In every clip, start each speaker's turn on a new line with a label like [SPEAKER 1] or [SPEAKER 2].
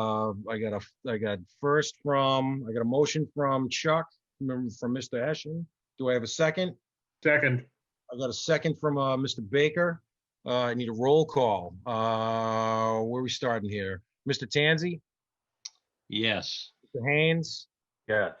[SPEAKER 1] um, I got a, I got first from, I got a motion from Chuck, from from Mr. Ashen. Do I have a second?
[SPEAKER 2] Second,
[SPEAKER 1] I got a second from uh, Mr. Baker. Uh, I need a roll call. Uh, Where are we starting here? Mr. Tanzi,
[SPEAKER 3] Yes.
[SPEAKER 1] Mr. Haynes,
[SPEAKER 4] yes,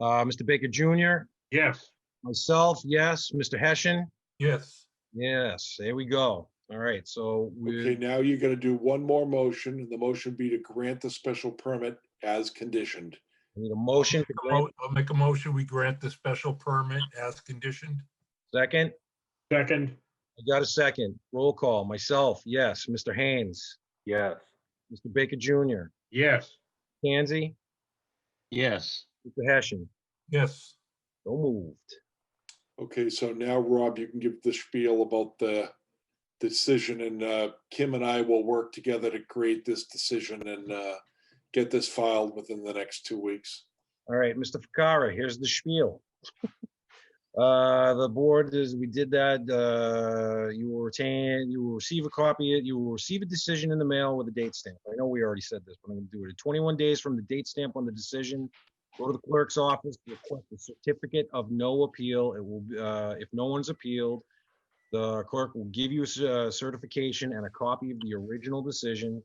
[SPEAKER 1] uh, Mr. Baker Jr.,
[SPEAKER 2] yes.
[SPEAKER 1] myself, yes, Mr. Hessian,
[SPEAKER 2] Yes.
[SPEAKER 1] yes, there we go. All right, so we,
[SPEAKER 5] Okay, now you're gonna do one more motion, and the motion be to grant the special permit as conditioned.
[SPEAKER 1] I need a motion, to grant-
[SPEAKER 6] I'll make a motion, we grant the special permit as conditioned.
[SPEAKER 1] second.
[SPEAKER 2] Second,
[SPEAKER 1] I got a second. Roll call. Myself, yes. Mr. Haynes,
[SPEAKER 4] yes,
[SPEAKER 1] Mr. Baker Jr.,
[SPEAKER 2] yes.
[SPEAKER 1] Tansy,
[SPEAKER 3] Yes.
[SPEAKER 1] Mr. Hessian.
[SPEAKER 6] Yes,
[SPEAKER 1] So moved.
[SPEAKER 5] Okay, so now Rob, you can give the spiel about the decision and uh, Kim and I will work together to create this decision and uh, get this filed within the next two weeks.
[SPEAKER 1] All right, Mr. Ficara, here's the spiel. Uh, the board is, we did that, uh, you will retain, you will receive a copy, you will receive a decision in the mail with a date stamp. I know we already said this, but I'm gonna do it. Twenty-one days from the date stamp on the decision, go to the clerk's office, request a certificate of no appeal. It will, be, uh, if no one's appealed, the clerk will give you a cer- uh, certification and a copy of the original decision.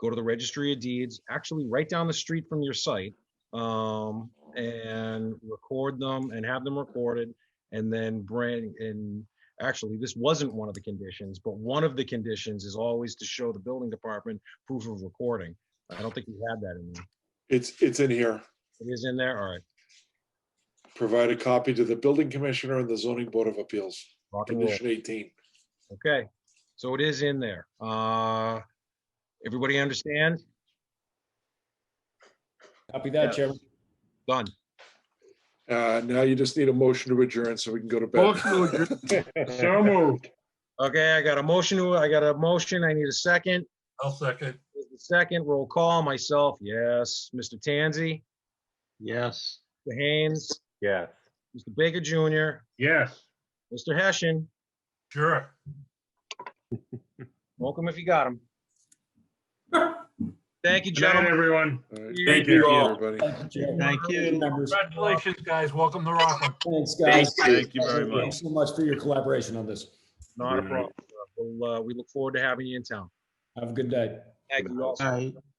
[SPEAKER 1] Go to the registry of deeds, actually right down the street from your site, um, and record them and have them recorded and then bring and actually this wasn't one of the conditions but one of the conditions is always to show the building department proof of recording i don't think we had that in there
[SPEAKER 5] It's, it's in here.
[SPEAKER 1] it is in there all right
[SPEAKER 5] Provide a copy to the building commissioner and the zoning board of appeals,
[SPEAKER 1] rock and roll
[SPEAKER 5] condition 18.
[SPEAKER 1] okay so it is in there uh everybody understand
[SPEAKER 7] Copy that,
[SPEAKER 4] Yes.
[SPEAKER 7] Chairman.
[SPEAKER 1] done
[SPEAKER 5] Uh, Now you just need a motion to adjourn so we can go to bed.
[SPEAKER 2] Motion to adjourn. So moved.
[SPEAKER 1] okay i got a motion to- i got a motion i need a second
[SPEAKER 6] I'll second.
[SPEAKER 1] Here's the second roll call myself yes mr tanzi
[SPEAKER 3] Yes.
[SPEAKER 1] mr haynes
[SPEAKER 4] yes.
[SPEAKER 1] mr baker jr
[SPEAKER 2] Yes.
[SPEAKER 1] Mr. Hessian,
[SPEAKER 6] Sure.
[SPEAKER 1] welcome if you got him. Thank you,
[SPEAKER 2] Good night,
[SPEAKER 1] gentlemen.
[SPEAKER 2] everyone.
[SPEAKER 5] All right.
[SPEAKER 1] Thank
[SPEAKER 5] Thank
[SPEAKER 4] you
[SPEAKER 5] you,
[SPEAKER 4] all.
[SPEAKER 5] everybody.
[SPEAKER 7] Thank you, Chairman.
[SPEAKER 3] Thank you.
[SPEAKER 7] Members.
[SPEAKER 6] Congratulations, guys. Welcome to Rockland.
[SPEAKER 7] Thanks, guys.
[SPEAKER 4] Thank you very much.
[SPEAKER 7] Thanks so much for your collaboration on this.
[SPEAKER 1] Not a problem. sir. We'll, uh, we look forward to having you in town.
[SPEAKER 7] Have a good night.
[SPEAKER 1] Thank you all.
[SPEAKER 3] All right.